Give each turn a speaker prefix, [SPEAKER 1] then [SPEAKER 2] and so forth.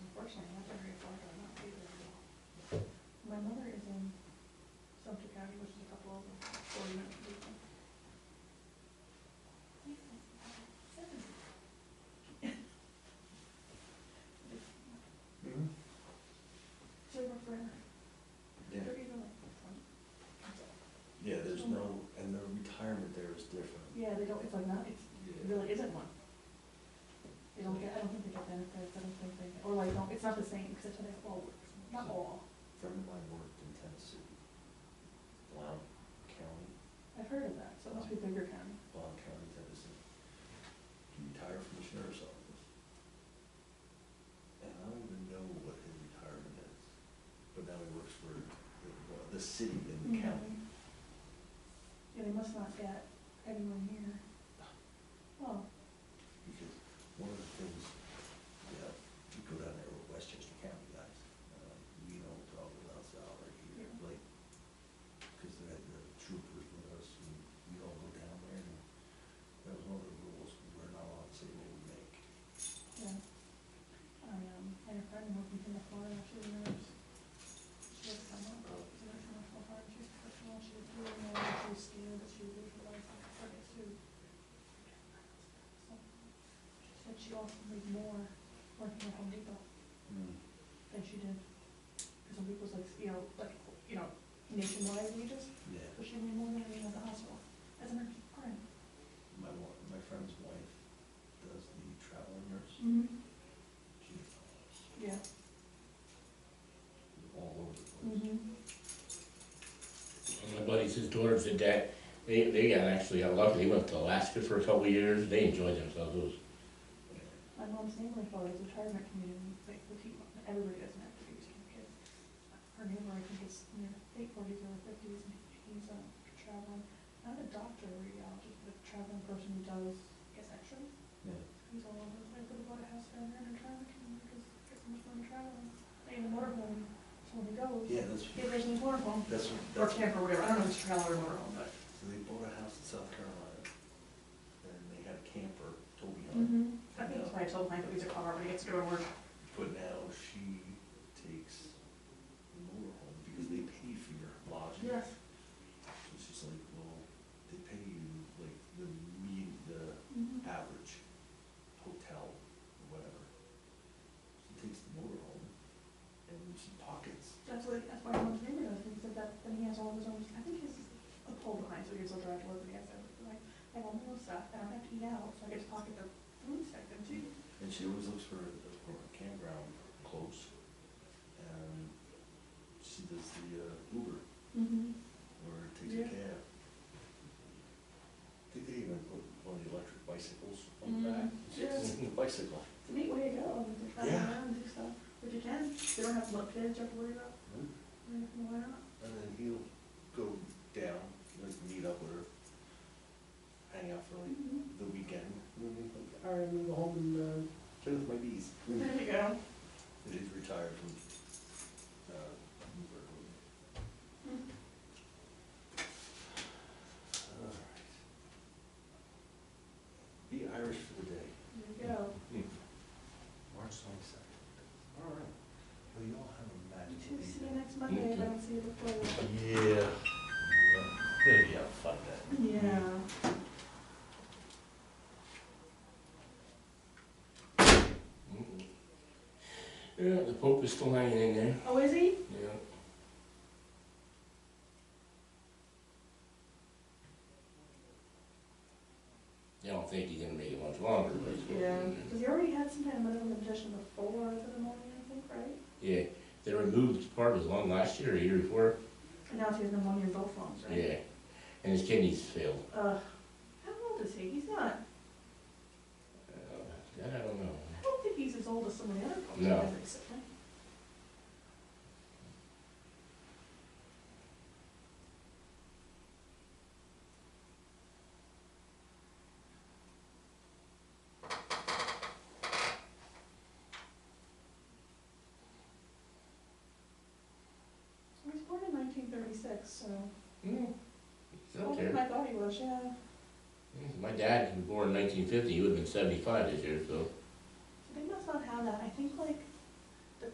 [SPEAKER 1] Gary was a couple over, four minutes. Silver Brenner,
[SPEAKER 2] Yeah,
[SPEAKER 1] they're even like,
[SPEAKER 2] yeah, there's no, and the retirement there is different.
[SPEAKER 1] yeah, they don't, it's like not, it's, it
[SPEAKER 2] Yeah,
[SPEAKER 1] really isn't one. They don't get, I don't think they get benefits, I don't think they, or like, don't- it's not the same, because that's how they all work, not all,
[SPEAKER 2] A friend of mine worked in Tennessee, Blount County,
[SPEAKER 1] I've heard of that, so it must be bigger county.
[SPEAKER 2] Blount County, Tennessee. He retired from the sheriff's office. And I don't even know what his retirement is, but now he works for the- well, the city and the
[SPEAKER 1] Mm-hmm.
[SPEAKER 2] county.
[SPEAKER 1] Yeah, they must not get anyone here. Well,
[SPEAKER 2] Because one of the things, yeah, you go down there with Westchester County guys, uh, you know, talk about salary here,
[SPEAKER 1] Yeah.
[SPEAKER 2] like, because they had the troopers with us, and we all go down there, and that was one of the rules, we're not allowed to say what we make.
[SPEAKER 1] yeah. I, um, had a friend who moved from Florida, she was a nurse. She was someone, she was from Florida, she was professional, she was doing, well, she was scared that she would lose her life, like, for it too. So, She said she often made more working at Home Depot than she did. Because Home Depot's like, you know, like, you know, nationwide wages,
[SPEAKER 2] Yeah,
[SPEAKER 1] but she made more than anyone at the hospital, as a nurse, grant.
[SPEAKER 2] my wa, my friend's wife does the traveling nurse,
[SPEAKER 1] Mm-hmm.
[SPEAKER 2] she's all-
[SPEAKER 1] Yeah.
[SPEAKER 2] all over the place.
[SPEAKER 1] Mm-hmm.
[SPEAKER 3] My buddies, his daughters did that. They, they got actually got lucky. They went to Alaska for a couple of years. They enjoyed themselves. It was,
[SPEAKER 1] My mom's neighbor father's retirement community, like, with people, everybody doesn't have to be just kids. Her neighbor, I think, is in their late forties or fifties, and he's, um, traveling, not a doctor or radiologist, but a traveling person who does, I guess, x-rays.
[SPEAKER 2] Yeah,
[SPEAKER 1] He's all over, like, would have bought a house down there in a retirement community, because it's much fun traveling. They have a motorhome, so when he goes,
[SPEAKER 2] yeah, that's,
[SPEAKER 1] he lives in his motorhome,
[SPEAKER 2] that's, what-
[SPEAKER 1] or
[SPEAKER 2] that's
[SPEAKER 1] camper, whatever, I don't know if it's trailer or motorhome, but.
[SPEAKER 2] So they bought a house in South Carolina, and they had a camper, Toby Hunt,
[SPEAKER 1] Mm-hmm. I think that's why I told Mike that he's a car, but he gets to go to work.
[SPEAKER 2] but now she takes the motorhome, because they pay for your lodging. So she's like, well, they pay you like the mean, the
[SPEAKER 1] Mm-hmm.
[SPEAKER 2] average hotel, or whatever. She takes the motorhome, and she pockets,
[SPEAKER 1] That's what, that's why I went to neighbor does, he said that, then he has all of his own, I think he's a pole behind, so he gets a drive to work, and he has everything, like, I have all my own stuff, I don't have to eat out, so I get to pocket the food section too.
[SPEAKER 2] and she always looks for a, for a campground close. And she does the uh, Uber.
[SPEAKER 1] Mm-hmm.
[SPEAKER 2] or takes a
[SPEAKER 1] Yeah.
[SPEAKER 2] cab. Think they even put one of the electric bicycles on
[SPEAKER 1] Mm,
[SPEAKER 2] the back.
[SPEAKER 1] yeah.
[SPEAKER 2] It's a bicycle.
[SPEAKER 1] It's a neat way to go, and to travel
[SPEAKER 2] Yeah.
[SPEAKER 1] around and do stuff, which you can, they don't have to look kids, you have to worry about,
[SPEAKER 2] And
[SPEAKER 1] I mean, why not?
[SPEAKER 2] then he'll go down, like meet up with her, hang out for like
[SPEAKER 1] Mhm.
[SPEAKER 2] the weekend. And then he's like, all right, I'm gonna go home and uh, play with my bees. And
[SPEAKER 1] There you go.
[SPEAKER 2] he's retired from, uh, Uber. Mm-hmm.
[SPEAKER 1] Mm.
[SPEAKER 2] All right. Be Irish for the day.
[SPEAKER 1] There you go.
[SPEAKER 2] March twenty-second. All right. Well, you all have a
[SPEAKER 1] You
[SPEAKER 2] magical
[SPEAKER 1] two, see you
[SPEAKER 2] evening.
[SPEAKER 1] next Monday, if I don't see you before. then.
[SPEAKER 2] Yeah. Gonna be a fun day.
[SPEAKER 1] Yeah.
[SPEAKER 3] mm-mm. mm-hmm. yeah, the Pope is still hanging in there.
[SPEAKER 1] Oh, is he?
[SPEAKER 3] Yeah. I don't think he's gonna make it much longer, but it's-
[SPEAKER 1] Yeah, because he already had some kind of medical condition before the pneumonia, I think, right?
[SPEAKER 3] yeah. They removed part of his lung last year or year before.
[SPEAKER 1] And now he has pneumonia in both lungs, right?
[SPEAKER 3] Yeah, and his kidneys failed.
[SPEAKER 1] Uh, how old is he? He's not,
[SPEAKER 3] Uh, that I don't know.
[SPEAKER 1] I don't think he's as old as some of the other folks.
[SPEAKER 3] No.
[SPEAKER 1] I've recently. He was born in nineteen thirty-six, so,
[SPEAKER 3] Hmm. It's
[SPEAKER 1] older
[SPEAKER 3] okay.
[SPEAKER 1] than I thought he was, yeah.
[SPEAKER 3] My dad was born in nineteen fifty, he would've been seventy-five this year, so.
[SPEAKER 1] So they must not have that. I think like